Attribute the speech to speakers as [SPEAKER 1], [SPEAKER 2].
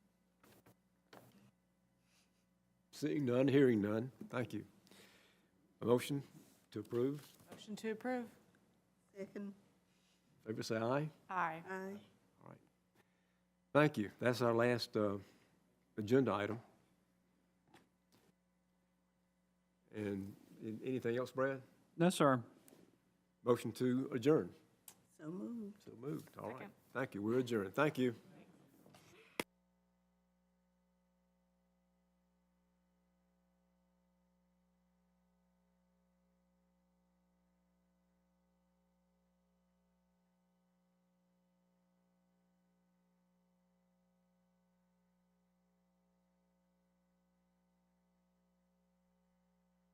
[SPEAKER 1] Seeing none, hearing none. Thank you. A motion to approve.
[SPEAKER 2] Motion to approve.
[SPEAKER 3] Second,
[SPEAKER 1] Favor say aye.
[SPEAKER 2] Aye.
[SPEAKER 3] aye.
[SPEAKER 1] Thank you. That's our last uh, agenda item. And an- anything else, Brad?
[SPEAKER 4] No, sir.
[SPEAKER 1] Motion to adjourn.
[SPEAKER 3] So moved.
[SPEAKER 1] So moved. All right.
[SPEAKER 2] Second.
[SPEAKER 1] Thank you. We're adjourned. Thank you.